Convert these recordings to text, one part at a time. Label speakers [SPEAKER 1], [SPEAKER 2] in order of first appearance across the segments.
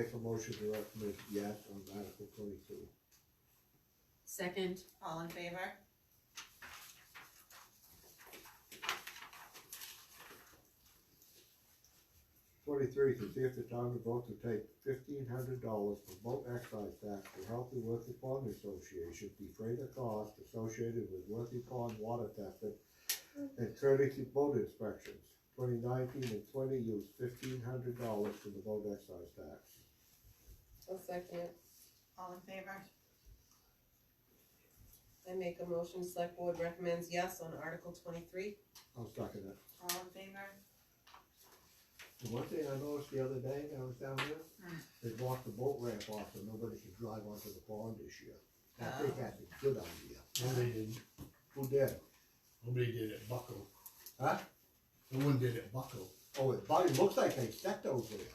[SPEAKER 1] Make a motion to recommend yes on Article twenty-two.
[SPEAKER 2] Second,
[SPEAKER 3] All in favor?
[SPEAKER 1] Twenty-three, to see if the town will vote to take fifteen hundred dollars from boat excise tax to help the Worthy Pond Association defray the cost associated with Worthy Pond water testing and courtesy boat inspections. Twenty nineteen and twenty use fifteen hundred dollars for the boat excise tax.
[SPEAKER 4] I'll second it.
[SPEAKER 3] All in favor?
[SPEAKER 4] I make a motion, select board recommends yes on Article twenty-three.
[SPEAKER 1] I'll second it.
[SPEAKER 3] All in favor?
[SPEAKER 1] The one thing I noticed the other day when I was down there, they blocked the boat ramp off so nobody could drive onto the pond this year. I think that's a good idea.
[SPEAKER 5] Nobody did,
[SPEAKER 1] Who did?
[SPEAKER 5] nobody did it buckle,
[SPEAKER 1] Huh?
[SPEAKER 5] no one did it buckle.
[SPEAKER 1] Oh, it probably looks like they stepped over there.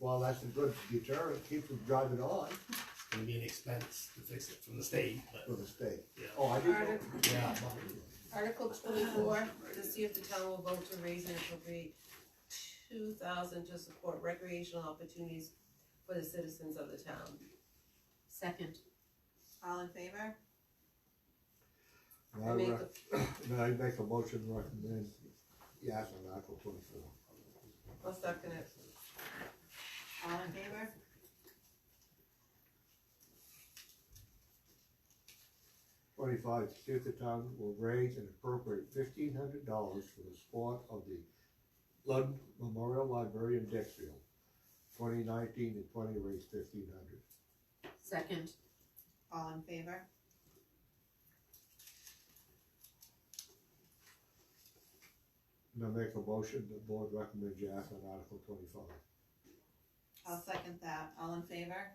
[SPEAKER 1] Well, that's a good deterrent, keep them driving on
[SPEAKER 5] It's gonna be an expense to fix it from the state, but
[SPEAKER 1] for the state.
[SPEAKER 5] yeah,
[SPEAKER 1] Oh, I didn't.
[SPEAKER 4] Article,
[SPEAKER 5] yeah, buckle.
[SPEAKER 4] Article twenty-four, to see if the town will vote to raise and appropriate two thousand to support recreational opportunities for the citizens of the town.
[SPEAKER 2] second,
[SPEAKER 3] All in favor?
[SPEAKER 1] Now,
[SPEAKER 4] I make,
[SPEAKER 1] I
[SPEAKER 4] a-
[SPEAKER 1] rec- now I make a motion to recommend, yes, on Article twenty-four.
[SPEAKER 4] I'll second it.
[SPEAKER 3] All in favor?
[SPEAKER 1] Twenty-five, to see if the town will raise and appropriate fifteen hundred dollars for the support of the Lund Memorial Library in Dixfield. Twenty nineteen and twenty raised fifteen hundred.
[SPEAKER 2] second,
[SPEAKER 3] All in favor?
[SPEAKER 1] And I make a motion, the board recommends yes on Article twenty-five.
[SPEAKER 3] I'll second that. All in favor?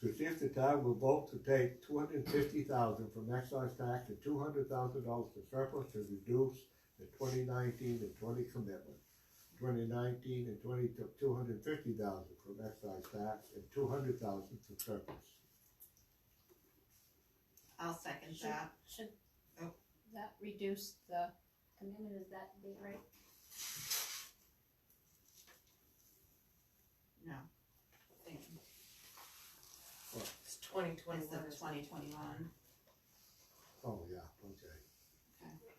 [SPEAKER 1] to see if the town will vote to take two hundred and fifty thousand from excise tax and two hundred thousand dollars to surplus to reduce the twenty nineteen and twenty commitment. Twenty nineteen and twenty took two hundred and fifty thousand from excise tax and two hundred thousand from surplus.
[SPEAKER 3] I'll second
[SPEAKER 6] Should-
[SPEAKER 3] that.
[SPEAKER 6] Should
[SPEAKER 3] Oh.
[SPEAKER 6] that reduce the commitment, is that the right?
[SPEAKER 3] No. Thank you.
[SPEAKER 4] It's twenty
[SPEAKER 3] It's
[SPEAKER 4] twenty-one.
[SPEAKER 3] the twenty twenty-one.
[SPEAKER 1] Oh, yeah, okay.
[SPEAKER 3] Okay.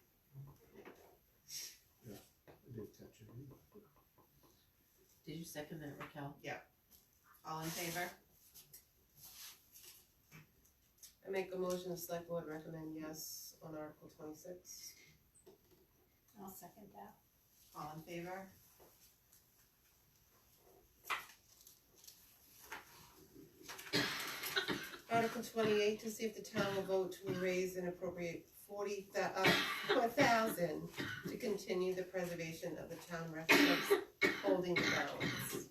[SPEAKER 1] Yeah, I did catch it.
[SPEAKER 2] did you second that Raquel?
[SPEAKER 3] All in favor?
[SPEAKER 4] I make a motion, the select board recommend yes on Article twenty-six.
[SPEAKER 6] I'll second that.
[SPEAKER 3] All in favor?
[SPEAKER 4] Article twenty-eight, to see if the town will vote to raise and appropriate forty thou- uh, four thousand to continue the preservation of the town records holding grounds.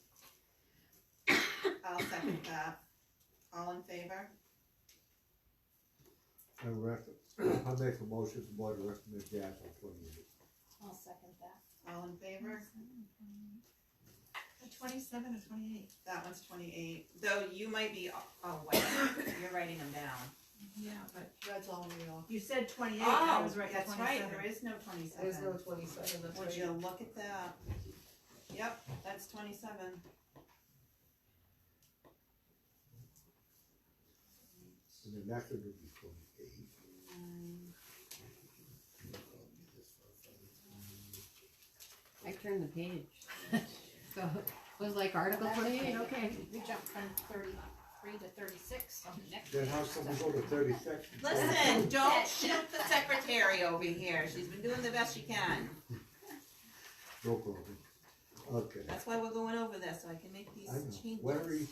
[SPEAKER 3] I'll second that. All in favor?
[SPEAKER 1] I rec, I make a motion, the board recommends yes on twenty-eight.
[SPEAKER 6] I'll second that.
[SPEAKER 3] All in favor? Twenty-seven or twenty-eight? That one's twenty-eight, though you might be, oh, wait, you're writing them down.
[SPEAKER 7] Yeah, but
[SPEAKER 4] That's all we all.
[SPEAKER 7] you said twenty-eight, and I
[SPEAKER 3] Oh,
[SPEAKER 7] was right,
[SPEAKER 3] that's
[SPEAKER 7] twenty-seven.
[SPEAKER 3] right, there is no
[SPEAKER 4] There's no
[SPEAKER 3] twenty-seven.
[SPEAKER 4] twenty-seven, that's
[SPEAKER 3] Would
[SPEAKER 4] right.
[SPEAKER 3] you look at that? Yep, that's twenty-seven.
[SPEAKER 1] And the next one would be twenty-eight.
[SPEAKER 2] I turned the page. So, it was like Article twenty-eight, okay.
[SPEAKER 6] We jumped from thirty-three to thirty-six on the next.
[SPEAKER 1] Then how come we go to thirty-six?
[SPEAKER 3] Listen, don't shoot the secretary over here, she's been doing the best she can,
[SPEAKER 1] No problem. Okay.
[SPEAKER 3] that's why we're going over this, so I can make these
[SPEAKER 1] I know.
[SPEAKER 3] changes.
[SPEAKER 1] Where are you?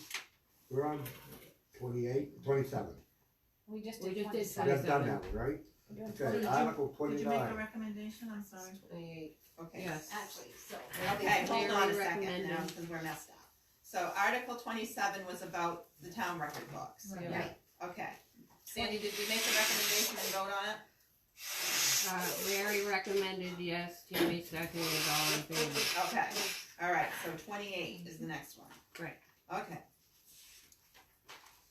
[SPEAKER 1] We're on twenty-eight, twenty-seven.
[SPEAKER 6] We just
[SPEAKER 2] We just did
[SPEAKER 6] did
[SPEAKER 1] We
[SPEAKER 6] twenty-seven.
[SPEAKER 1] have done that one, right? Okay, Article
[SPEAKER 7] Did you make a
[SPEAKER 1] twenty-nine.
[SPEAKER 7] recommendation, I'm sorry?
[SPEAKER 4] Twenty-eight,
[SPEAKER 3] Okay.
[SPEAKER 2] Yes.
[SPEAKER 6] Actually, so.
[SPEAKER 3] Okay, hold on a second
[SPEAKER 2] recommending.
[SPEAKER 3] now, because we're messed up. So Article twenty-seven was about the town record books.
[SPEAKER 2] Yeah.
[SPEAKER 6] Right,
[SPEAKER 3] Okay. Sandy, did we make a recommendation and vote on it?
[SPEAKER 2] Uh, Larry recommended yes, Tammy seconded, all in favor.
[SPEAKER 3] Okay, alright, so twenty-eight is the next one.
[SPEAKER 2] Right.
[SPEAKER 3] Okay.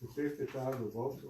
[SPEAKER 1] to see if the town will vote to